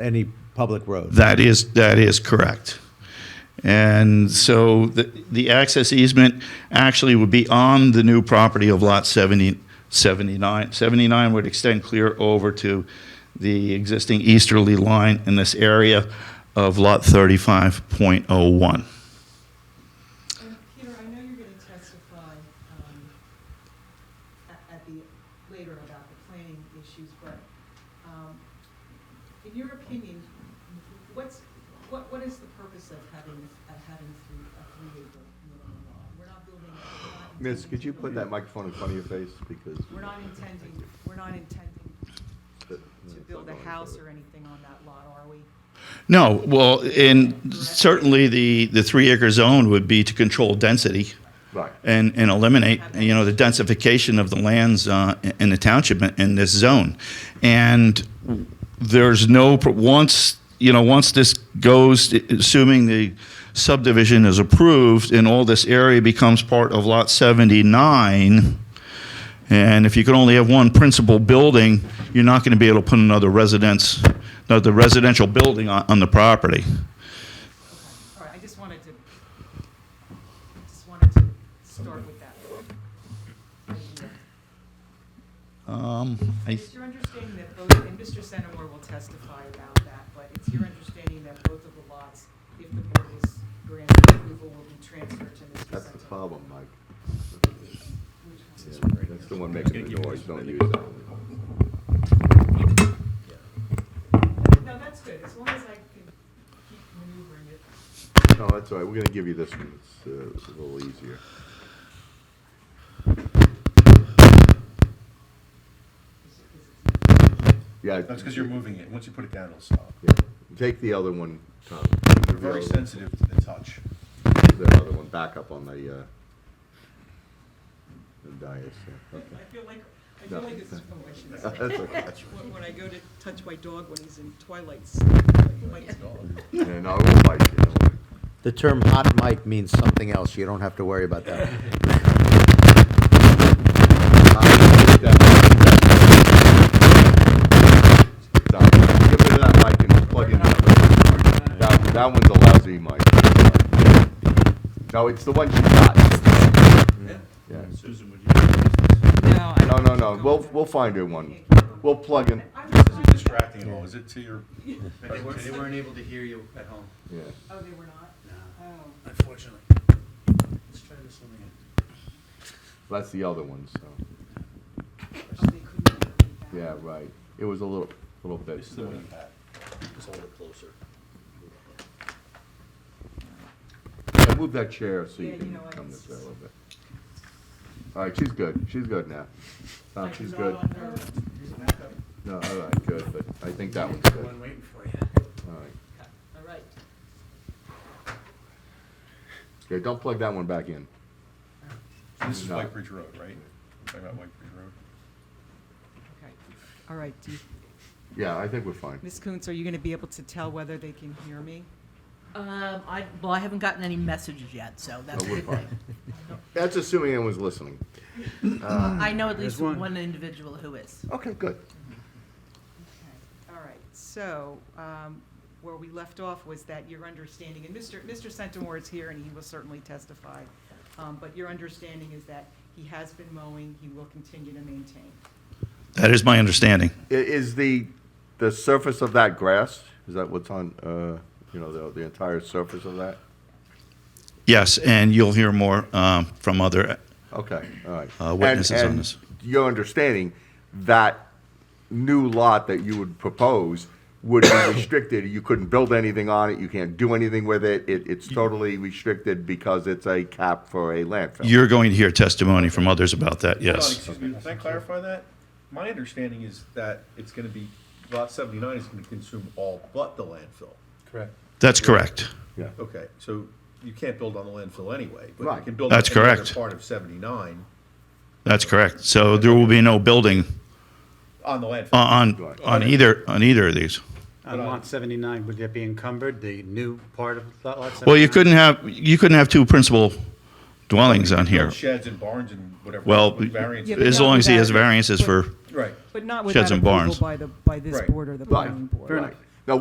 any public road. That is, that is correct. And so the, the access easement actually would be on the new property of lot 70, 79. 79 would extend clear over to the existing easterly line in this area of lot 35.01. And Peter, I know you're going to testify um, a- at the, later about the planning issues, but um, in your opinion, what's, what, what is the purpose of having, of having three, a three acre minimum lot? We're not building. we're not Miss, intending could you to build- put that microphone in front of your face, because? We're not intending, we're not intending to build a house or anything on that lot, are we? No, well, and certainly the, the three acre zone would be to control density. Right. and, and eliminate, you know, the densification of the lands uh, in the township in- in this zone. And there's no, once, you know, once this goes, assuming the subdivision is approved and all this area becomes part of Lot 79, and if you can only have one principal building, you're not going to be able to put another residence, another residential building on, on the property. All right, I just wanted to, just wanted to start with that. idea. Um, I It's your understanding that both, and Mr. Centimore will testify about that, but it's your understanding that both of the lots, if the board is granted approval, will be transferred to Mr. Centimore? That's the problem, Mike. Which one? Yeah, That's the one making the noise, don't use that one. No, that's good, as long as I can keep maneuvering it. No, that's all right, we're gonna give you this one, it's uh, it's a little easier. Is it- is it- Yeah. That's because you're moving it. Once you put it down, it'll stop. yeah. Take the other one, Tom. They're very sensitive to the touch. The other one, back up on the, uh, the dais, yeah, okay. I feel like, I feel like it's, oh, I shouldn't say. That's okay. When when I go to touch my dog when he's in twilight's, like, Yeah, no, we'll fight you, don't worry. The term hot mic means something else. You don't have to worry about that. Get rid of that mic and just plug in that one. That, that one's a lousy mic. No, it's the one she got. Yeah. no, I No, don't. no, no, we'll, we'll find her one. We'll plug in, I was This trying is to- distracting at all. Is it to your? They weren't, they weren't able to hear you at home. yeah. Oh, they were not? Oh. Unfortunately. Let's try this one again. That's the other one, so, Oh, they couldn't hear me back. yeah, right. It was a little, little bit. This is the uh, one you had. Just hold it closer. Yeah, move that chair so Yeah, you you can know what, come it's this way a just- little bit. All right, she's good, she's good now. Tom, Like, she's not good. on her- No, all right, good, but I think that one's good. One waiting for you. All right. All right. Okay, don't plug that one back in. This is No. White Bridge Road, right? We're talking about White Bridge Road. Okay, all right. do you- Yeah, I think we're fine. Ms. Coons, are you going to be able to tell whether they can hear me? Um, I, well, I haven't gotten any messages yet, so that's. No, we're fine. That's assuming anyone's listening. I know at least There's one. one individual who is. Okay, good. Okay. All right, so um, where we left off was that your understanding, and Mr. Mr. Centimore is here and he will certainly testify, um, but your understanding is that he has been mowing, he will continue to maintain. That is my understanding. I- Is the, the surface of that grass, is that what's on, uh, you know, the, the entire surface of that? Yes, and you'll hear more um, from other Okay, all right. Uh, witnesses And- on this. and Your understanding, that new lot that you would propose would be restricted, you couldn't build anything on it, you can't do anything with it, it, it's totally restricted because it's a cap for a landfill. You're going to hear testimony from others about that, Hold on, yes. Excuse me, can I clarify that? My understanding is that it's gonna be, lot seventy-nine is gonna consume all but the landfill. Correct. That's correct. Yeah. Okay, so you can't build on the landfill anyway, but you Right. can build. That's on any other correct. Part of seventy-nine That's correct. So there will be no building on the landfill. on, on- on either, on either of these. On lot 79, would that be encumbered, the new part of lot 79? Well, you couldn't have, you couldn't have two principal dwellings on here. Sheds and barns and whatever. Well, what variance Yeah, it is. as long as he has variances for, Right. But not Sheds without and approval barns. by the, by this Right. board or the Right. planning board. Fair enough. Right.